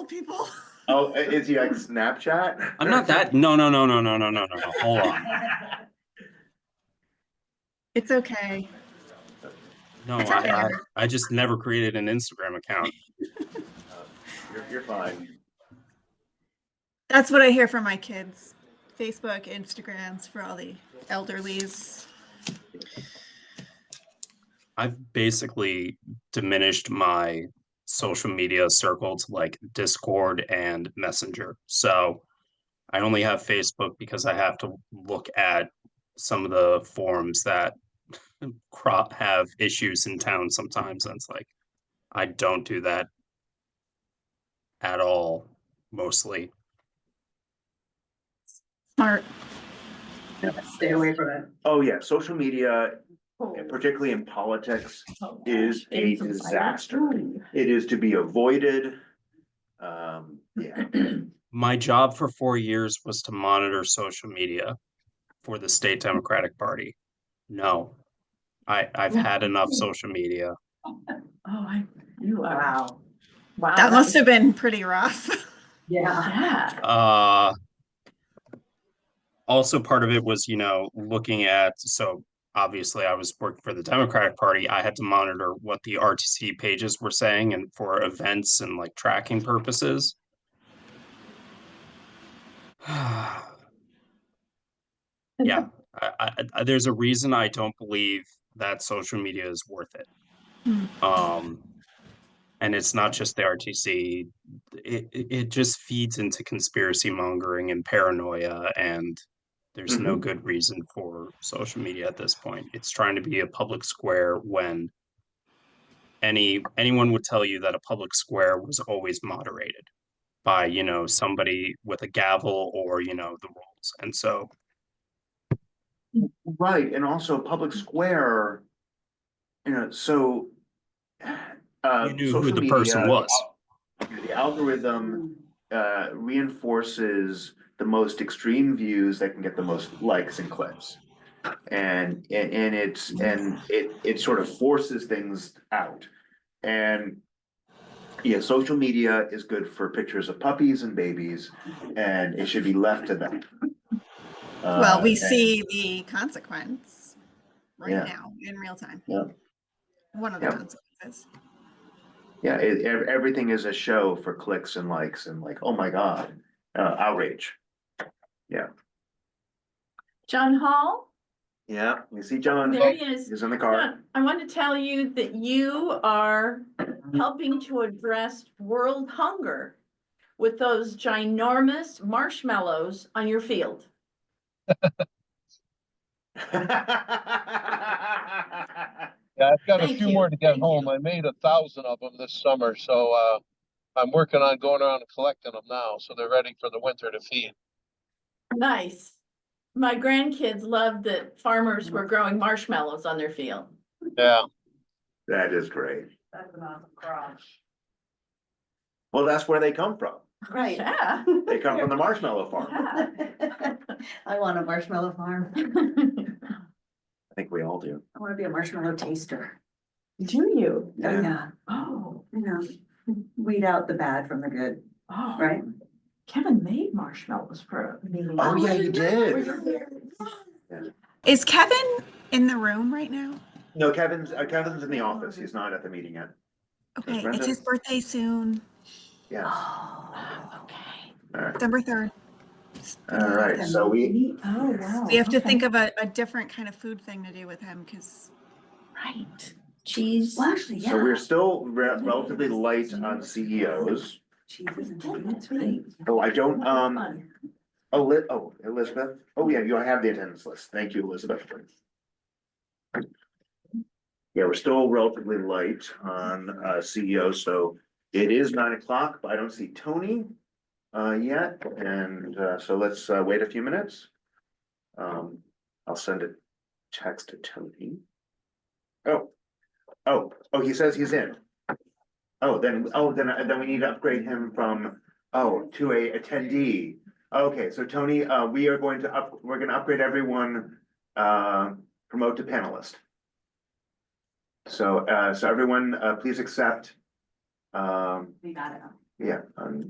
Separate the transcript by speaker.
Speaker 1: people.
Speaker 2: Oh, i- is he like Snapchat?
Speaker 3: I'm not that, no, no, no, no, no, no, no, no, no, hold on.
Speaker 1: It's okay.
Speaker 3: No,
Speaker 1: It's
Speaker 3: I,
Speaker 1: okay.
Speaker 3: I, I just never created an Instagram account.
Speaker 2: You're, you're fine.
Speaker 1: That's what I hear from my kids. Facebook, Instagrams for all the elderlies.
Speaker 3: I've basically diminished my social media circle to like Discord and Messenger. So I only have Facebook because I have to look at some of the forums that crop have issues in town sometimes. And it's like, I don't do that at all, mostly.
Speaker 1: Smart.
Speaker 4: Stay away from it.
Speaker 2: Oh, yeah, social media, particularly in politics, is a disaster. It is to be avoided. Um, yeah,
Speaker 3: My job for four years was to monitor social media for the state Democratic Party. No, I, I've had enough social media.
Speaker 5: Oh, I, you are.
Speaker 4: Wow. Wow.
Speaker 1: That must have been pretty rough.
Speaker 4: Yeah.
Speaker 5: Yeah.
Speaker 3: Uh, also, part of it was, you know, looking at, so obviously I was working for the Democratic Party. I had to monitor what the RTC pages were saying and for events and like tracking purposes. Yeah, I, I, I- there's a reason I don't believe that social media is worth it.
Speaker 1: Hmm.
Speaker 3: Um, and it's not just the RTC. It, it it just feeds into conspiracy mongering and paranoia, and there's no good reason for social media at this point. It's trying to be a public square when any anyone would tell you that a public square was always moderated by you know somebody with a gavel or you know the rules, and so.
Speaker 2: right, and also public square. You know, so. uh,
Speaker 3: You knew who
Speaker 2: social
Speaker 3: the person
Speaker 2: media,
Speaker 3: was.
Speaker 2: The algorithm
Speaker 4: Um,
Speaker 2: uh, reinforces the most extreme views that can get the most likes and clicks. And, and, and it's, and it, it sort of forces things out. And yeah, social media is good for pictures of puppies and babies, and it should be left to them.
Speaker 1: Well, we
Speaker 2: Uh,
Speaker 1: see the consequence
Speaker 2: Yeah.
Speaker 1: right now in real time.
Speaker 2: Yeah.
Speaker 1: One of the
Speaker 2: Yeah.
Speaker 1: consequences.
Speaker 2: Yeah, it, ev- everything is a show for clicks and likes and like, oh my God, uh, outrage.
Speaker 5: John Hall,
Speaker 2: Yeah, we see John,
Speaker 5: there he is.
Speaker 2: he's in the car.
Speaker 5: John, I want to tell you that you are helping to address world hunger with those ginormous marshmallows on your field.
Speaker 6: Yeah, I've got a
Speaker 5: Thank
Speaker 6: few
Speaker 5: you,
Speaker 6: more to get
Speaker 5: thank
Speaker 6: home.
Speaker 5: you.
Speaker 6: I made a thousand of them this summer, so, uh, I'm working on going around and collecting them now, so they're ready for the winter to feed.
Speaker 5: Nice. My grandkids loved that farmers were growing marshmallows on their field.
Speaker 6: Yeah,
Speaker 2: That is great.
Speaker 4: That's an awesome garage.
Speaker 2: Well, that's where they come from.
Speaker 4: Right.
Speaker 5: Yeah.
Speaker 2: They come from the marshmallow farm.
Speaker 5: Yeah.
Speaker 4: I want a marshmallow farm.
Speaker 2: I think we all do.
Speaker 4: I want to be a marshmallow taster.
Speaker 5: Do you?
Speaker 4: Oh,
Speaker 2: Yeah.
Speaker 4: yeah.
Speaker 5: Oh,
Speaker 4: You know, weed out the bad from the good,
Speaker 5: oh.
Speaker 4: right?
Speaker 5: Kevin made marshmallows for me.
Speaker 2: Oh, yeah, you did.
Speaker 1: Is Kevin in the room right now?
Speaker 2: No, Kevin's, uh, Kevin's in the office. He's not at the meeting yet.
Speaker 1: Okay,
Speaker 2: Brenda.
Speaker 1: it's his birthday soon,
Speaker 2: Yeah.
Speaker 4: Oh,
Speaker 5: Okay.
Speaker 1: December 3rd.
Speaker 2: All right, so we,
Speaker 5: Oh, wow.
Speaker 1: We have to
Speaker 5: Okay.
Speaker 1: think of a, a different kind of food thing to do with him because
Speaker 5: Right. Cheese.
Speaker 4: Well, actually, yeah.
Speaker 2: so we're still re- relatively light on CEOs.
Speaker 4: Cheeses and
Speaker 5: Oh,
Speaker 4: donuts,
Speaker 5: that's right.
Speaker 4: right?
Speaker 2: Oh, I don't, um,
Speaker 5: Fun.
Speaker 2: Eli- oh, Elizabeth. Oh, yeah, you have the attendance list. Thank you, Elizabeth. Yeah, we're still relatively light on uh, CEO, so it is nine o'clock, but I don't see Tony uh, yet, and uh, so let's uh, wait a few minutes. Um, I'll send a text to Tony. Oh, oh, oh, he says he's in. Oh, then, oh, then, then we need to upgrade him from, oh, to a attendee. Okay, so Tony, uh, we are going to up, we're gonna upgrade everyone, uh, promote to panelist. So, uh, so everyone, uh, please accept, um,
Speaker 4: We got it.
Speaker 2: yeah, um,